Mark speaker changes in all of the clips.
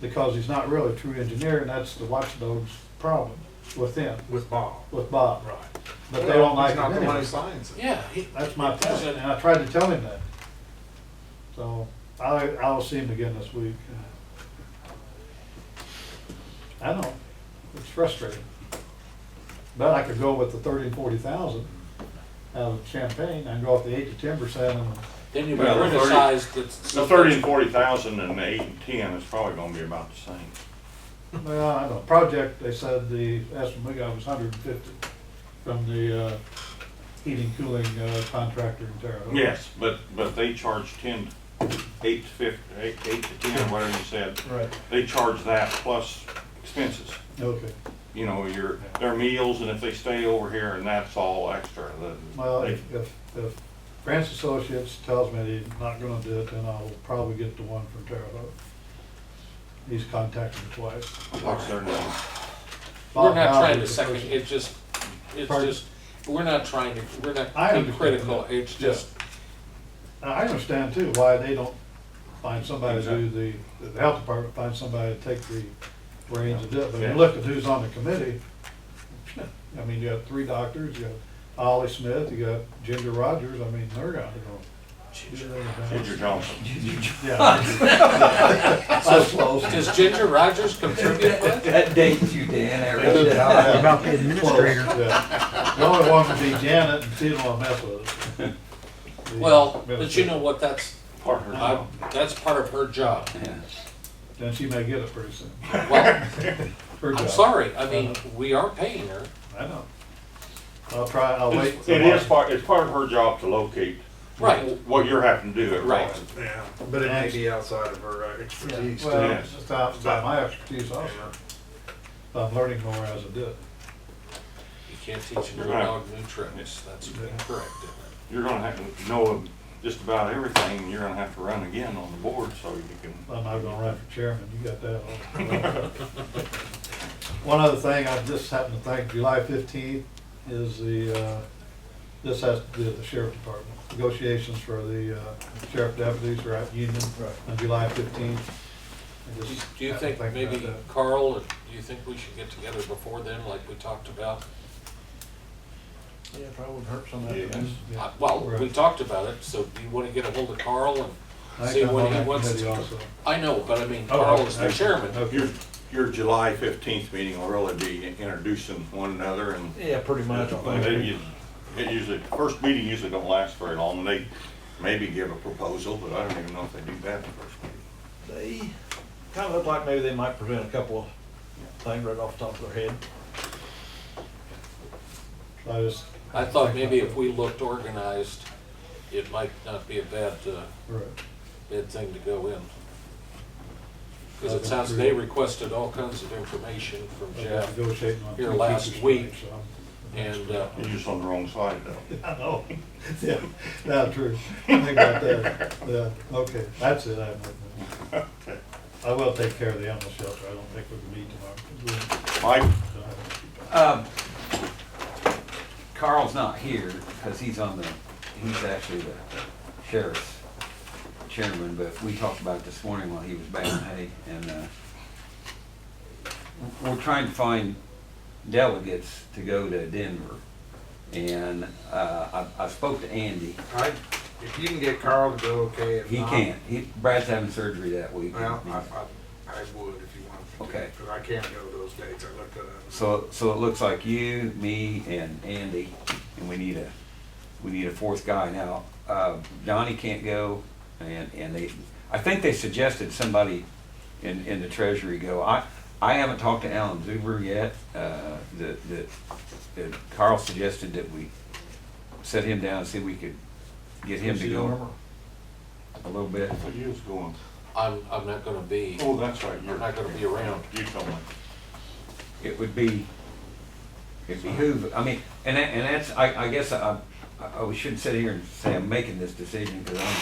Speaker 1: because he's not really a true engineer, and that's the watchdog's problem with them,
Speaker 2: with Bob.
Speaker 1: with Bob.
Speaker 2: Right.
Speaker 1: But they don't like
Speaker 2: He's
Speaker 1: it
Speaker 2: not the one who
Speaker 1: anyway.
Speaker 2: signs it.
Speaker 3: Yeah, he,
Speaker 1: That's my point, and I tried to tell him that. So I, I'll see him again this week. I know, it's frustrating. But I could go with the thirty and forty thousand out of Champaign, and go up to eight to ten percent, and
Speaker 3: then you
Speaker 4: Well, the thirty-
Speaker 3: criticize the.
Speaker 4: The thirty and forty thousand and the eight and ten is probably gonna be about the same.
Speaker 1: Well, I don't know, project, they said the estimate we got was hundred and fifty from the, uh, heating, cooling uh, contractor in Terre Haute.
Speaker 4: Yes, but, but they charge ten, eight to fif, eight, eight to ten, whatever you said,
Speaker 1: Right,
Speaker 4: they charge that plus expenses.
Speaker 1: okay.
Speaker 4: You know, your, their meals and if they stay over here and that's all extra, the-
Speaker 1: Well,
Speaker 4: they-
Speaker 1: if, if if Grants Associates tells me they're not gonna do it, then I'll probably get the one from Terre Haute. He's contacted me twice.
Speaker 4: what's their name?
Speaker 3: We're
Speaker 1: Bob
Speaker 3: not
Speaker 1: Bowden
Speaker 3: trying to
Speaker 1: is the
Speaker 3: second,
Speaker 1: person.
Speaker 3: it's just, it's
Speaker 1: Pardon?
Speaker 3: just, we're not trying to, we're
Speaker 1: I
Speaker 3: not being
Speaker 1: understand
Speaker 3: critical,
Speaker 1: that.
Speaker 3: it's
Speaker 1: Yeah.
Speaker 3: just,
Speaker 1: And I understand too why they don't find somebody to do the, the health department finds somebody to take the reins and do it. But when you look at who's on the committee, I mean, you got three doctors, you got Ollie Smith, you got Ginger Rogers, I mean, they're gonna
Speaker 4: Ginger
Speaker 1: go.
Speaker 4: Johnson.
Speaker 1: Yeah. That's close.
Speaker 3: does Ginger Rogers contribute with?
Speaker 5: That dates you, Dan, I read it out.
Speaker 1: About the administrator. The only one would be Janet and she don't wanna mess with it. The
Speaker 3: Well, but you
Speaker 1: administrator.
Speaker 3: know what, that's,
Speaker 4: Partner.
Speaker 3: I- that's part of her job.
Speaker 1: Then she may get it pretty soon.
Speaker 3: Well,
Speaker 1: Her
Speaker 3: I'm
Speaker 1: job. Uh-huh.
Speaker 3: sorry, I mean, we are paying her,
Speaker 1: I know. I'll try, I'll wait.
Speaker 4: It's-
Speaker 1: for
Speaker 4: It is
Speaker 1: March.
Speaker 4: part, it's part of her job to locate
Speaker 3: right,
Speaker 4: what you're having to do at
Speaker 3: Right.
Speaker 4: Rollins.
Speaker 2: Yeah, but it may be outside of her uh, expertise too.
Speaker 1: Well,
Speaker 4: Yes.
Speaker 1: it's out- it's out my expertise also. I'm learning more as I do it.
Speaker 3: you can't teach a new
Speaker 4: Right.
Speaker 3: dog new tricks, that's incorrect, isn't it?
Speaker 4: You're gonna have to know just about everything, and you're gonna have to run again on the board, so you can.
Speaker 1: I'm not gonna run for chairman, you got that all. One other thing, I just happened to think, July fifteenth is the, uh, this has to do with the sheriff department. Negotiations for the uh, sheriff deputies are at union on July fifteenth.
Speaker 3: Do you- Do you think maybe
Speaker 1: uh,
Speaker 3: Carl, or do you think we should get together before then, like we talked about?
Speaker 2: Yeah, probably would hurt some
Speaker 4: Yes.
Speaker 3: Uh, Well, we talked about it, so do you want to get a hold of Carl and see when he wants to- I know, but I
Speaker 1: Oh,
Speaker 3: mean, Carl is the chairman.
Speaker 4: Your, your July fifteenth meeting will really be introducing one another and.
Speaker 2: Yeah, pretty much. I think.
Speaker 4: They u- It usually, first meeting usually don't last very long, and they maybe give a proposal, but I don't even know if they do that the first meeting.
Speaker 2: They kind of look like maybe they might present a couple of things right off the top of their head.
Speaker 1: I just.
Speaker 3: I thought maybe if we looked organized, it might not be a bad, uh,
Speaker 1: Right.
Speaker 3: bad thing to go in. Because it sounds they requested all kinds of information from
Speaker 1: I've been
Speaker 3: Jeff,
Speaker 1: negotiating on
Speaker 3: here
Speaker 1: two
Speaker 3: last
Speaker 1: pieces
Speaker 3: week,
Speaker 1: tonight, so I'm-
Speaker 3: and uh,
Speaker 4: You're just on the wrong side, though.
Speaker 1: I know. Yeah, that's true. Think about that. Yeah, okay, that's it. I have nothing else. I will take care of the animal shelter. I don't think we can meet tomorrow.
Speaker 4: Mike,
Speaker 5: Um, Carl's not here, because he's on the, he's actually the sheriff's chairman, but we talked about it this morning while he was back, hey, and, uh, we're trying to find delegates to go to Denver, and, uh, I, I spoke to Andy,
Speaker 6: I, if you can get Carl to go, okay. If
Speaker 5: he
Speaker 6: not,
Speaker 5: can't, he, Brad's having surgery that week.
Speaker 6: Uh-huh. Well, I, I, I would if you want to.
Speaker 5: Okay.
Speaker 6: Because I can't go those dates. I looked at it.
Speaker 5: So, so it looks like you, me, and Andy, and we need a, we need a fourth guy now. Uh, Donnie can't go, and, and they, I think they suggested somebody in, in the treasury go. I, I haven't talked to Alan Zuber yet, uh, the, the, the- Carl suggested that we set him down, and see if we could get him to go a little bit.
Speaker 4: I thought you was going,
Speaker 3: I'm, I'm not gonna be,
Speaker 4: oh, that's right, you're.
Speaker 3: I'm not gonna be around.
Speaker 4: You told me.
Speaker 5: it would be, it behoove, I mean, and that, and that's, I, I guess I, I I shouldn't sit here and say I'm making this decision, because I'm,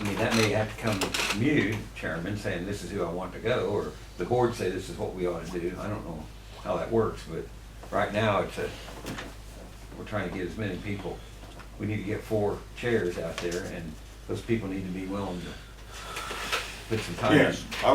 Speaker 5: I mean, that may have to come from you, chairman, saying this is who I want to go, or the board say this is what we ought to do, I don't know how that works, but right now, it's a, we're trying to get as many people, we need to get four chairs out there, and those people need to be willing to put some time. in.
Speaker 4: Yes, I